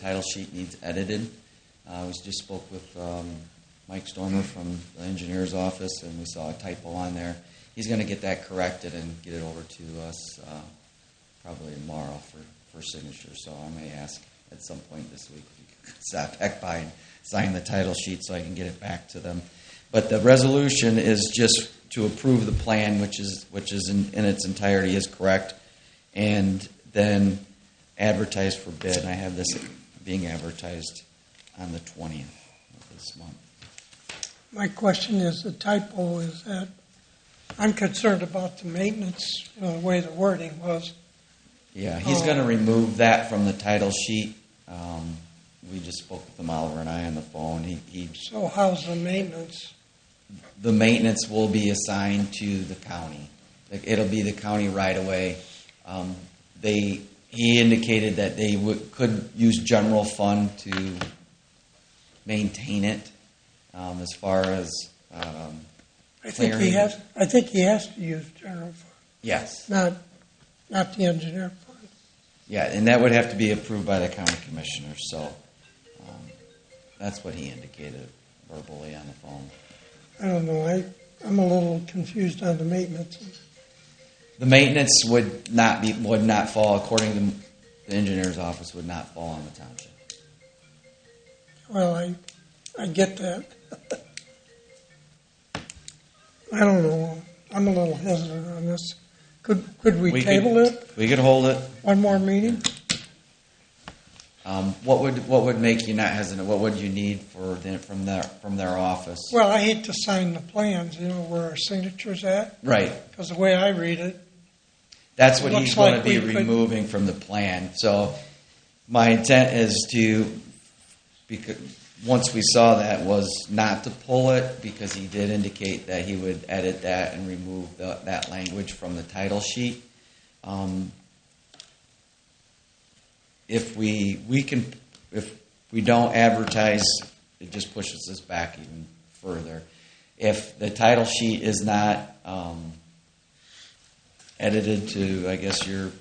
title sheet needs edited. Uh, we just spoke with um, Mike Stormer from the engineer's office, and we saw a typo on there. He's going to get that corrected and get it over to us uh, probably tomorrow for, for signature. So I may ask at some point this week if you could stop back by and sign the title sheet so I can get it back to them. But the resolution is just to approve the plan, which is which is in, in its entirety is correct, and then advertise for bid. And I have this being advertised on the twentieth of this month. My question is, the typo is that, I'm concerned about the maintenance, uh, the way the wording was. Yeah, he's Oh. going to remove that from the title sheet. Um, we just spoke with him, Oliver and I, on the phone. He, he So how's the maintenance? the maintenance will be assigned to the county. Like, It'll be the county right away. Um, they, he indicated that they would, could use general fund to maintain it, um, as far as, um, I think he Clearing. has, I think he has to use general fund, yes, not, not the engineer fund. yeah, and that would have to be approved by the county commissioner, so, um, that's what he indicated verbally on the phone. I don't know, I, I'm a little confused on the maintenance. The maintenance would not be, would not fall, according to the engineer's office, would not fall on the township. Well, I, I get that. I don't know, I'm a little hesitant on this. Could, could we We could- table it We could hold it. one more meeting? Um, what would what would make you not hesitant? What would you need for the, from their from their office? Well, I hate to sign the plans, you know, where our signature's at, Right. because the way I read it, That's what Looks he's going like to be we could- removing from the plan. So my intent is to because once we saw that was not to pull it because he did indicate that he would edit that and remove the, that language from the title sheet. Um, if we we can if we don't advertise, it just pushes us back even further. If the title sheet is not um, edited to, I guess your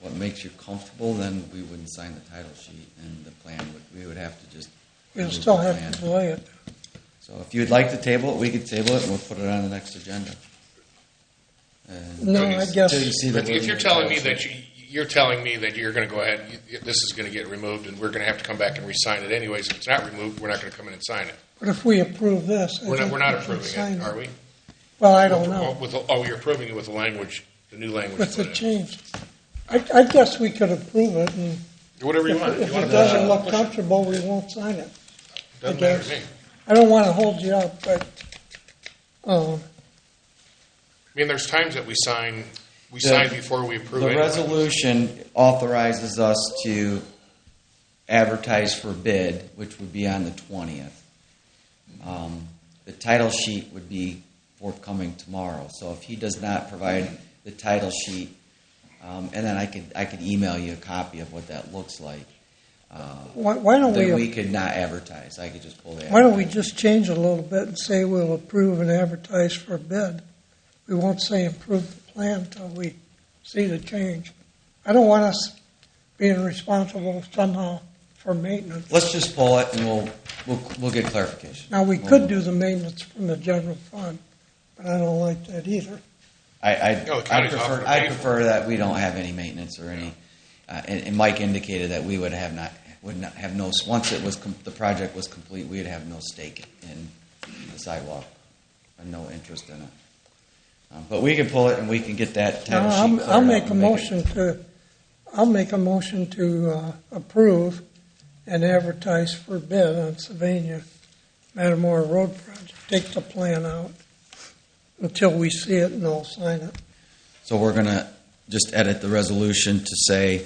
what makes you comfortable, then we wouldn't sign the title sheet and the plan. Would, we would have to just we'll remove still the have plan. to delay it. So if you'd like to table it, we could table it and we'll put it on the next agenda. And No, till you- I guess- till you see the If if you're wording of the telling me title that sheet. you, you're telling me that you're going to go ahead, and you- this is going to get removed, and we're going to have to come back and re-sign it anyways. If it's not removed, we're not going to come in and sign it. But if we approve this, I We're not, think we're not we should approving sign it, are we? Well, I don't know, With, the- oh, you're approving it with the language, the new language. with the put in. change. I, I guess we could approve it, and Whatever you if want. if You want it to- doesn't push look it. comfortable, we won't sign it. Doesn't okay. matter to me. I don't want to hold you up, but, um, I mean, there's times that we sign, we The- sign before we approve The it. resolution authorizes us to advertise for bid, which would be on the twentieth. Um, the title sheet would be forthcoming tomorrow, so if he does not provide the title sheet, um, and then I could, I could email you a copy of what that looks like. Uh, why, why don't then we we, could not advertise, I could just pull the. why don't we advertisement. just change it a little bit and say we'll approve and advertise for bid? We won't say approve the plan until we see the change. I don't want us being responsible somehow for maintenance. Let's just pull it and we'll, we'll, we'll get clarification. Now, we could do the maintenance from the general fund, but I don't like that either. I, I, No, the I county's offering prefer, to I pay for it. prefer that we don't have any maintenance or any, uh, and, and Mike indicated that we would have not, would not have no, once it was, com- the project was complete, we'd have no stake in the sidewalk, and no interest in it. Um, But we can pull it and we can get that title sheet I'll, cleared I'll up make a and it- motion to, I'll make a motion to uh, approve and advertise for bid on Sylvania Matamora Road project. Take the plan out until we see it and I'll sign it. So we're gonna just edit the resolution to say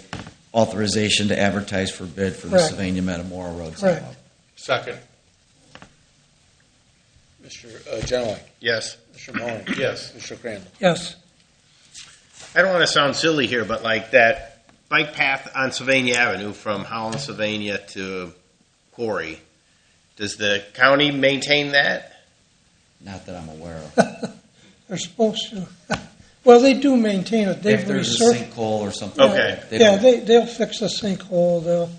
authorization to advertise for bid for the Correct. Sylvania Metamora Road Correct. sidewalk. Second, Mr. uh, Genoway. Yes, Mr. Mahoney. yes. Mr. Crandall. Yes, I don't want to sound silly here, but like that bike path on Sylvania Avenue from Holland, Sylvania to Quarry, does the county maintain that? Not that I'm aware of. they're supposed to. Well, they do maintain it. They've If there's a resurfaced. sinkhole or something. Okay. they Yeah, don't- they, they'll fix the sinkhole, they'll